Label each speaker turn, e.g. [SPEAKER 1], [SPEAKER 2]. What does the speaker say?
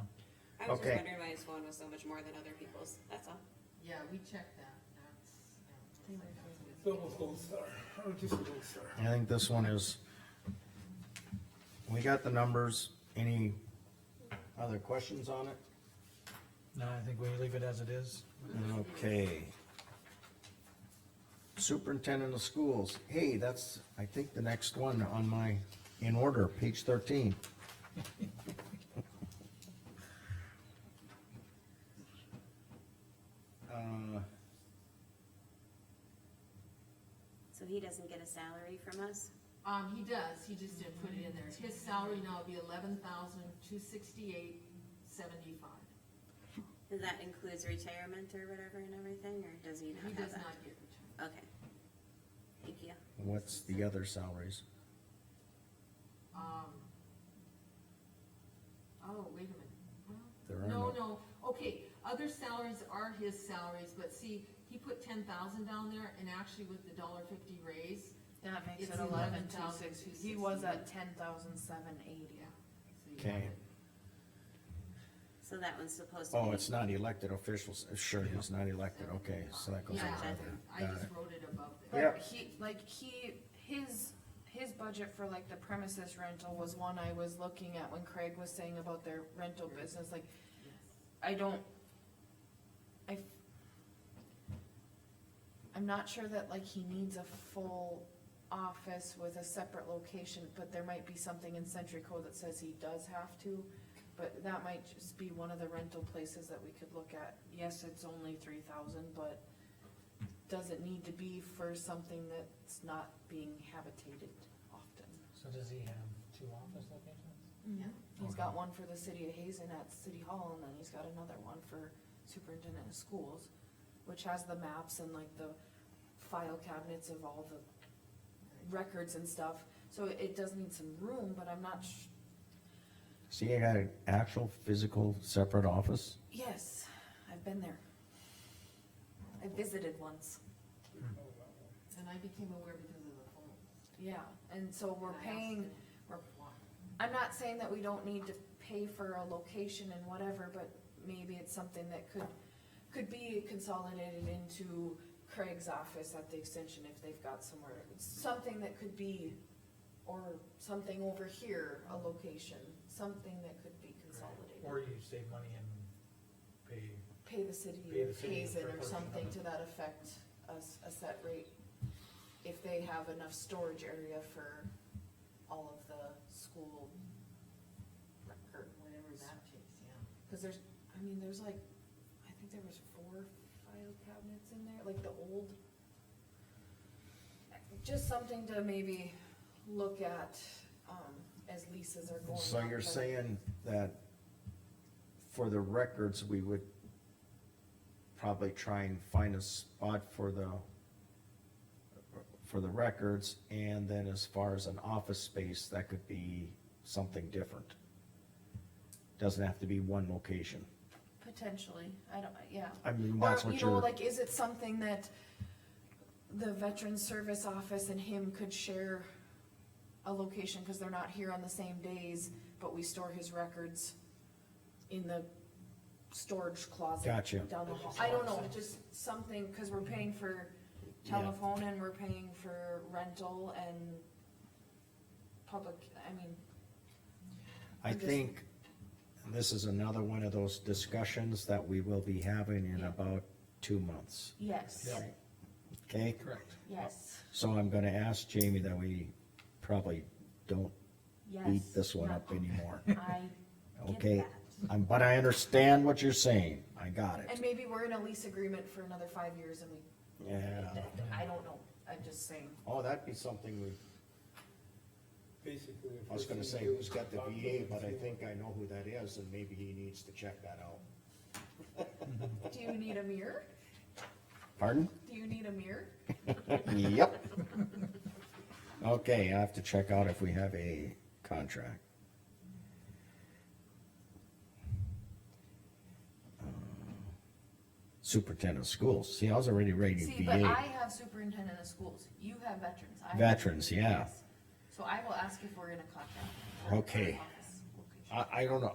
[SPEAKER 1] I was just
[SPEAKER 2] Okay.
[SPEAKER 1] wondering why his phone was so much more than other people's, that's all.
[SPEAKER 3] Yeah, we checked that, that's, yeah. looks like that's what it's-
[SPEAKER 4] Double gold star, or just a gold star.
[SPEAKER 2] I think this one is, we got the numbers, any other questions on it?
[SPEAKER 5] No, I think we leave it as it is.
[SPEAKER 2] Okay. Superintendent of Schools, hey, that's, I think, the next one on my, in order, page thirteen. Uh,
[SPEAKER 6] So he doesn't get a salary from us?
[SPEAKER 3] Um, he does, he just didn't put it in there, his salary now would be eleven thousand, two sixty-eight, seventy-five.
[SPEAKER 6] And that includes retirement or whatever and everything, or does he
[SPEAKER 3] He
[SPEAKER 6] not have
[SPEAKER 3] does
[SPEAKER 6] that?
[SPEAKER 3] not get returned.
[SPEAKER 6] Okay. Thank you.
[SPEAKER 2] What's the other salaries?
[SPEAKER 3] Um. Oh, wait a minute, well.
[SPEAKER 2] There are
[SPEAKER 3] No,
[SPEAKER 2] no,
[SPEAKER 3] no, okay, other salaries are his salaries, but see, he put ten thousand down there, and actually with the dollar fifty raise,
[SPEAKER 7] That makes
[SPEAKER 3] It's
[SPEAKER 7] it eleven two
[SPEAKER 3] 11,260.
[SPEAKER 7] sixty, he was at ten thousand seven eighty.
[SPEAKER 3] yeah. so you
[SPEAKER 2] okay,
[SPEAKER 6] So that one's supposed to be.
[SPEAKER 2] oh, it's not elected officials, Uh, sure, he's not elected, okay, so that goes. Uh,
[SPEAKER 3] Yeah,
[SPEAKER 2] above there.
[SPEAKER 3] I
[SPEAKER 2] Got
[SPEAKER 3] just
[SPEAKER 2] it.
[SPEAKER 3] wrote it above there.
[SPEAKER 2] Yeah.
[SPEAKER 7] But he, like, he, his, his budget for like the premises rental was one I was looking at when Craig was saying about their rental business, like, I don't, I, f- I'm not sure that like he needs a full office with a separate location, but there might be something in Century Code that says he does have to. But that might just be one of the rental places that we could look at. Yes, it's only three thousand, but does it need to be for something that's not being habitated often?
[SPEAKER 5] So does he have two office locations?
[SPEAKER 3] Yeah.
[SPEAKER 7] He's got one for the city of Hazen at City Hall, and then he's got another one for superintendent of schools, which has the maps and like the file cabinets of all the records and stuff, so it does need some room, but I'm not sh-
[SPEAKER 2] See, I got an actual physical separate office,
[SPEAKER 7] yes, I've been there. I visited once,
[SPEAKER 3] And I became aware because of the phone.
[SPEAKER 7] yeah, and so we're
[SPEAKER 3] And I asked
[SPEAKER 7] paying,
[SPEAKER 3] him
[SPEAKER 7] we're
[SPEAKER 3] why.
[SPEAKER 7] I'm not saying that we don't need to pay for a location and whatever, but maybe it's something that could, could be consolidated into Craig's office at the extension if they've got somewhere, something that could be, or something over here, a location, something that could be consolidated.
[SPEAKER 5] Or you save money and pay,
[SPEAKER 7] Pay the city
[SPEAKER 5] Pay the
[SPEAKER 7] of
[SPEAKER 5] city
[SPEAKER 7] Hazen
[SPEAKER 5] for a
[SPEAKER 7] or
[SPEAKER 5] portion of
[SPEAKER 7] something
[SPEAKER 5] it.
[SPEAKER 7] to that effect, a, s- a set rate, if they have enough storage area for all of the school records.
[SPEAKER 3] Whatever that takes, yeah.
[SPEAKER 7] Cause there's, I mean, there's like, I think there was four file cabinets in there, like the old. Just something to maybe look at, um, as leases are going
[SPEAKER 2] so
[SPEAKER 7] up,
[SPEAKER 2] you're
[SPEAKER 7] but-
[SPEAKER 2] saying that for the records, we would probably try and find a spot for the for the records, and then as far as an office space, that could be something different. Doesn't have to be one location.
[SPEAKER 7] Potentially, I don't, yeah.
[SPEAKER 2] I mean,
[SPEAKER 7] Or,
[SPEAKER 2] that's what
[SPEAKER 7] you know,
[SPEAKER 2] you're,
[SPEAKER 7] like, is it something that the veteran service office and him could share a location, cause they're not here on the same days, but we store his records in the storage closet
[SPEAKER 2] Gotcha.
[SPEAKER 7] down the hall. I don't know, just something, cause we're paying for
[SPEAKER 2] Yeah.
[SPEAKER 7] telephone and we're paying for rental and public, I mean,
[SPEAKER 2] I
[SPEAKER 7] I'm just-
[SPEAKER 2] think this is another one of those discussions that we will be having in
[SPEAKER 7] Yeah.
[SPEAKER 2] about two months,
[SPEAKER 7] yes,
[SPEAKER 5] Yeah.
[SPEAKER 2] okay?
[SPEAKER 5] correct.
[SPEAKER 7] yes,
[SPEAKER 2] So I'm gonna ask Jamie that we probably don't
[SPEAKER 7] yes.
[SPEAKER 2] beat this one
[SPEAKER 7] yeah.
[SPEAKER 2] up anymore,
[SPEAKER 7] I
[SPEAKER 6] Get
[SPEAKER 2] okay?
[SPEAKER 6] that.
[SPEAKER 2] Um, but I understand what you're saying, I got
[SPEAKER 7] And
[SPEAKER 2] it,
[SPEAKER 7] maybe we're in a lease agreement for another five years and we,
[SPEAKER 2] yeah.
[SPEAKER 7] I don't know, I'm just saying.
[SPEAKER 2] Oh, that'd be something we,
[SPEAKER 4] Basically.
[SPEAKER 2] I was gonna say who's got the VA, but I think I know who that is, and maybe he needs to check that out.
[SPEAKER 7] Do you need a mirror?
[SPEAKER 2] Pardon?
[SPEAKER 7] Do you need a mirror?
[SPEAKER 2] Yep. Okay, I have to check out if we have a contract. Uh, Superintendent of schools, see, I was already ready to
[SPEAKER 7] See, but I
[SPEAKER 2] VA.
[SPEAKER 7] have superintendent of schools, you have veterans. I have-
[SPEAKER 2] Veterans, yeah.
[SPEAKER 7] Yes. So I will ask if we're in a contract.
[SPEAKER 2] Okay. I, I don't know,